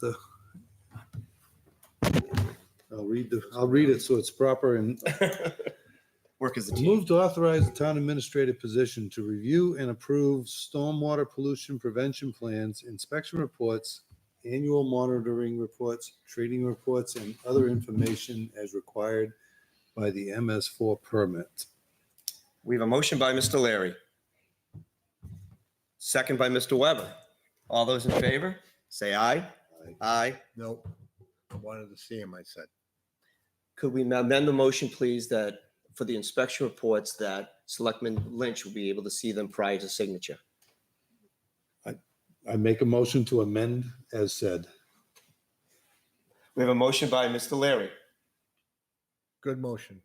the, I'll read the, I'll read it so it's proper and Work as a team. move to authorize the town administrative position to review and approve stormwater pollution prevention plans, inspection reports, annual monitoring reports, trading reports, and other information as required by the MS4 permit. We have a motion by Mr. Larry. Second by Mr. Weber. All those in favor, say aye. Aye. Aye. Nope. I wanted to see him, I said. Could we amend the motion, please, that for the inspection reports that Selectman Lynch will be able to see them prior to signature? I make a motion to amend as said. We have a motion by Mr. Larry. Good motion.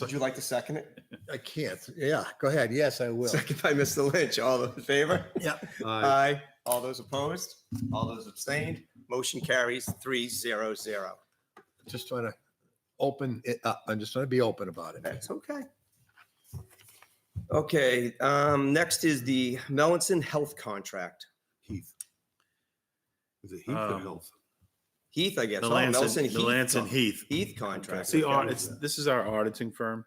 Would you like to second it? I can't. Yeah, go ahead. Yes, I will. Second by Mr. Lynch. All those in favor? Yeah. Aye. Aye. All those opposed? All those abstained? Motion carries three zero zero. Just trying to open it up. I'm just trying to be open about it. That's okay. Okay, um, next is the Melanson Health Contract. Heath. Is it Heath or Um, Health? Heath, I guess. The Oh, Lansing, Melanson the Lansing Heath. Heath. Heath contract. It's the, au- Okay. it's, this is our auditing firm.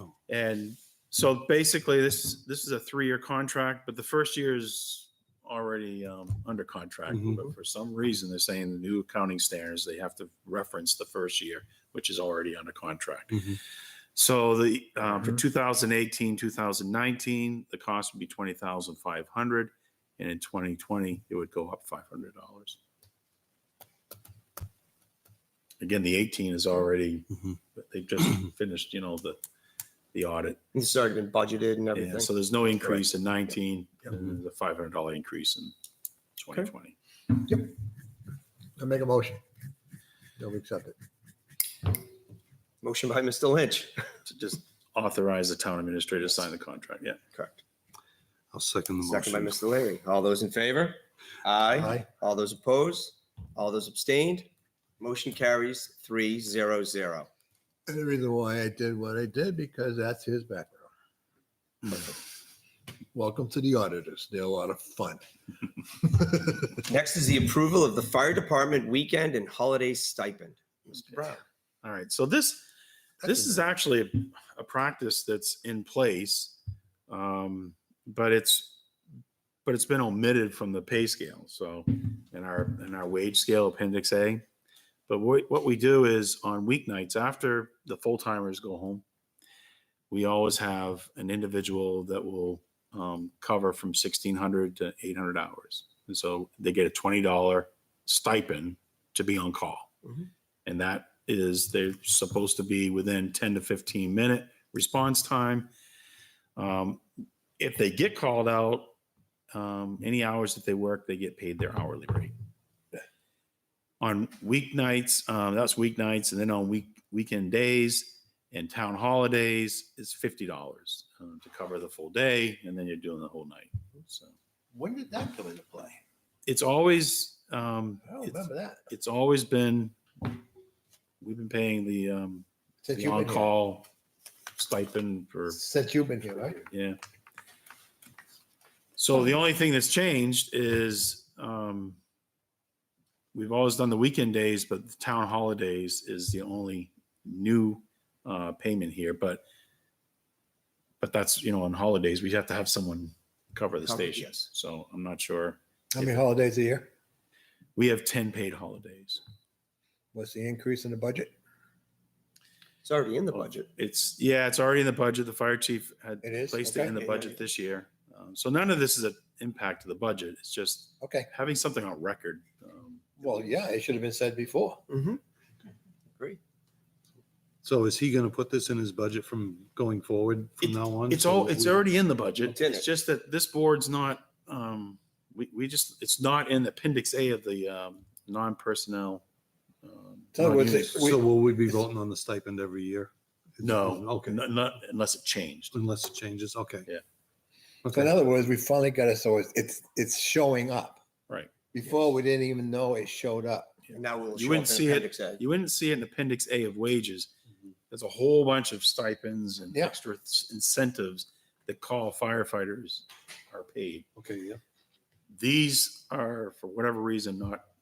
Oh. And so basically this, this is a three-year contract, but the first year is already um, under contract. Mhm. But for some reason, they're saying the new accounting standards, they have to reference the first year, which is already under contract. Mhm. So the, uh, for 2018, 2019, the cost would be 20,500. And in 2020, it would go up $500. Again, the 18 is already but they've just finished, you know, the, the audit. It's already been budgeted and Yeah, everything. so there's no increase in nineteen, and the five hundred dollar increase in twenty twenty. I make a motion. They'll accept it. Motion by Mr. Lynch. To just authorize the town administrator to sign the contract, yeah. Correct. I'll second the Second by motion. Mr. Larry. All those in favor? Aye. Aye. All those opposed? All those abstained? Motion carries three zero zero. And the reason why I did what I did, because that's his background. Hmm. Welcome to the auditors. They're a lot of fun. Next is the approval of the fire department weekend and holiday stipend. Mr. Brown. All right, so this, this is actually a practice that's in place, um, but it's, but it's been omitted from the pay scale, so in our, in our wage scale appendix A. But what, what we do is on weeknights after the full timers go home, we always have an individual that will um, cover from sixteen hundred to eight hundred hours. And so they get a twenty dollar stipend to be on call. Mhm. And that is they're supposed to be within ten to fifteen minute response time. Um, if they get called out, um, any hours that they work, they get paid their hourly rate. On weeknights, um, that's weeknights, and then on week weekend days, and town holidays is fifty dollars um, to cover the full day, and then you're doing the whole night. So When did that come into play? it's always um, I don't it's, remember that. it's always been we've been paying the, um, Since the you've on been here. call stipend for Since you've been here, right? yeah. So the only thing that's changed is um, we've always done the weekend days, but the town holidays is the only new uh, payment here. But but that's you know on holidays we have to have someone cover the Cover, station. yes. So I'm not sure How many holidays a year? we have ten paid holidays. What's the increase in the budget? It's already in the Oh. budget. It's yeah, it's already in the budget. The fire chief had It is? placed Okay. it in the budget this year. Um, so none of this is an impact to the budget. It's just Okay. having something on record. Um, Well, yeah, it should have been said before. Mm-hmm. So is he going to put this in his budget from going forward from It- now on? It's So all, it's we- already in the It's budget. in It's it. just that this board's not, um, we, we just, it's not in appendix A of the, um, non-personnel. um, In other words, non-union. So will we be voting on the stipend every year? No, Okay. okay, not, unless it changed. Unless it changes, okay. Yeah. So in Okay, other words, we finally got it. So it's it's, it's showing up. Right. Before we didn't even know it showed up. And now we'll. You show up wouldn't in see it. Appendix A. You wouldn't see it in appendix A of wages. There's a whole bunch of stipends and Yeah. extra incentives that call firefighters are paid. okay, yeah. These are, for whatever reason, not